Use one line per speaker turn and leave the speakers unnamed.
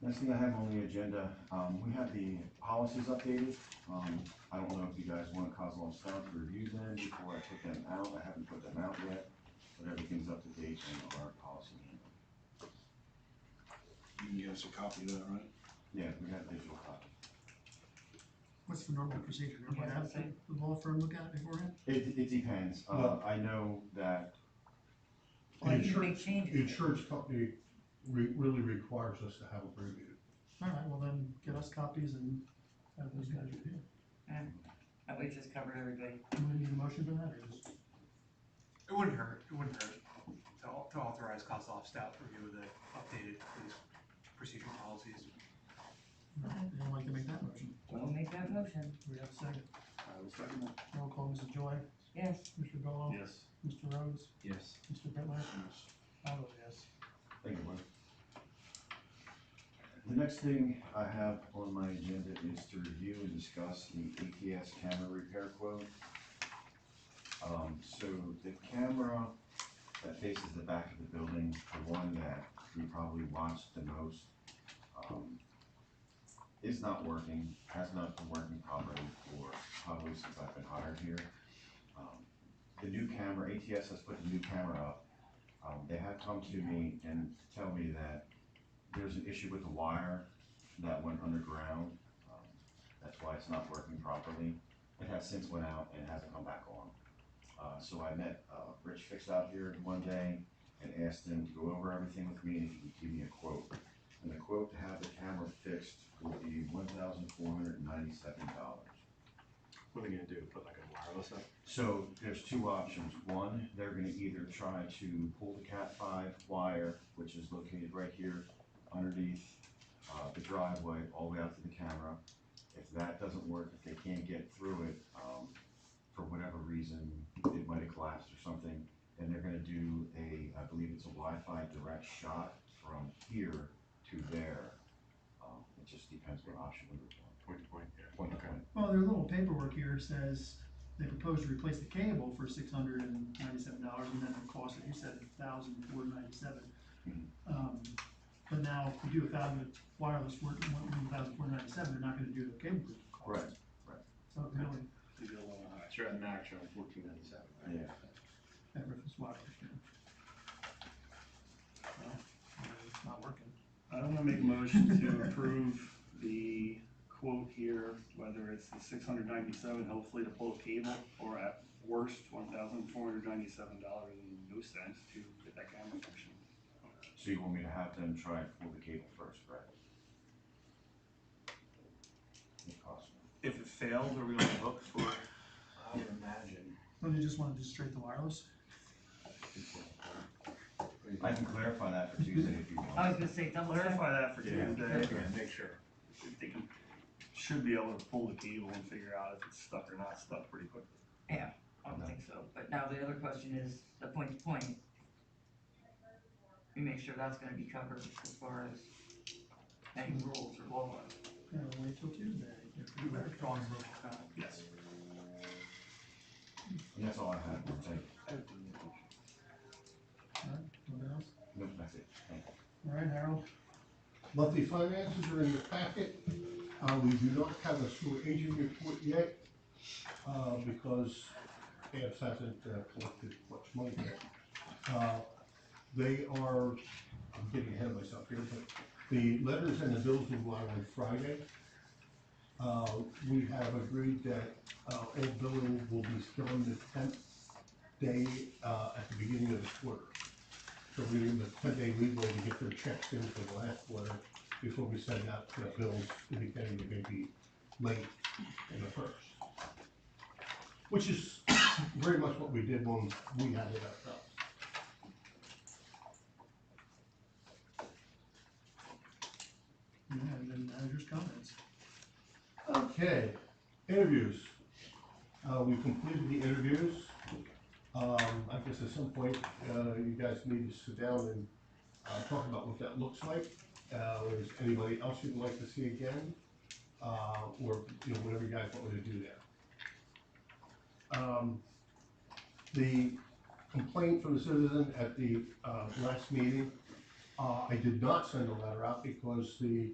Next thing I have on the agenda, um, we have the policies updated. Um, I don't know if you guys want to cause a staff to review them before I put them out. I haven't put them out yet, but everything's up to date in our policy. manual.
You can give us a copy of that, right?
Yeah, we got digital copy.
What's the normal procedure? Everyone have the the law firm look at it beforehand?
It, it depends. Uh, I know that,
The
Like, you make
insurance, the
changes.
insurance company re- really requires us to have a board meeting.
All right, well then, get us copies and have those guys review.
That we just covered everybody.
Do we need a motion for that or just?
It wouldn't hurt, it wouldn't hurt to au- to authorize Kozloff staff to review the updated police procedural policies.
Anyone like to make that motion?
We'll make that motion.
Do we have a second?
I will second that.
Roll call, Mrs. Joy,
Yes.
Mr. Gallow,
Yes.
Mr. Rhodes,
Yes.
Mr. Bitler. I vote yes.
thank you, Mike. The next thing I have on my agenda is to review and discuss the ATS camera repair quote. Um, so the camera that faces the back of the building, the one that we probably watched the most, um, is not working, has not been working properly for probably since I've been hired here. Um, The new camera, ATS has put the new camera up. Um, they have come to me and tell me that there's an issue with the wire that went underground. Um, That's why it's not working properly. It has since went out and hasn't come back on. Uh, so I met, uh, Rich Fix out here one day and asked him to go over everything with me and he would give me a quote. And the quote to have the camera fixed will be one thousand four hundred and ninety-seven dollars.
What are they gonna do, put like a wireless up?
So there's two options. One, they're gonna either try to pull the Cat five wire, which is located right here underneath, uh, the driveway, all the way out to the camera. If that doesn't work, if they can't get through it, um, for whatever reason, it might have collapsed or something, then they're gonna do a, I believe it's a Wi-Fi direct shot from here to there. Um, it just depends what option we were
Point to point,
going. Point to point.
Well, their little paperwork here says they propose to replace the cable for six hundred and ninety-seven dollars and then the cost, that you said thousand four ninety-seven.
Mhm.
Um, but now if you do a thousand wireless work, one, one thousand four ninety-seven, they're not gonna do the cable cost.
Right,
So it really,
They do a little high. Sure, the max, you're like fourteen ninety-seven.
Yeah.
that reference wireless, you know. Well, It's not working.
I'm gonna make a motion to approve the quote here, whether it's the six hundred ninety-seven, hopefully to pull a cable, or at worst, one thousand four hundred ninety-seven dollars and no cents to get that camera function.
So you want me to have them try and pull the cable first, right? It costs me.
If it fails, are we on the hook for?
I would imagine.
Well, they just wanna do straight the wireless?
I can clarify that for Tuesday if you
I was
want.
gonna say double check.
Clarify that for
Yeah.
Tuesday,
Yeah, make sure.
if they can, should be able to pull the cable and figure out if it's stuck or not stuck pretty quick.
I don't think so. But now the other question is the point to point. We make sure that's gonna be covered as far as any rules or law.
Yeah, wait till Tuesday.
Do we have to draw on the roll for that?
Yes.
And that's all I have, thank you.
Alright, Anything else?
No, that's it, thank you.
Alright, Harold?
Monthly finances are in your packet. Uh, we do not have a sewer agent report yet, uh, because AMS hasn't uh, collected much money yet. Uh, They are, I'm getting ahead of myself here, but the letters and the bills will go out on Friday. Uh, we have agreed that, uh, all billing will be done the tenth day, uh, at the beginning of the quarter. So we give them a ten-day leeway to get their checks in for the last quarter before we send out the bills indicating they may be late in the first. Which is very much what we did when we had it ourselves.
Yeah, and then manager's comments.
Okay, interviews. Uh, we completed the interviews. Um, I guess at some point, uh, you guys need to sit down and, uh, talk about what that looks like. Uh, is anybody else you'd like to see again? Uh, or, you know, whatever you guys want me to do there. Um, the complaint from the citizen at the, uh, last meeting, uh, I did not send a letter out because the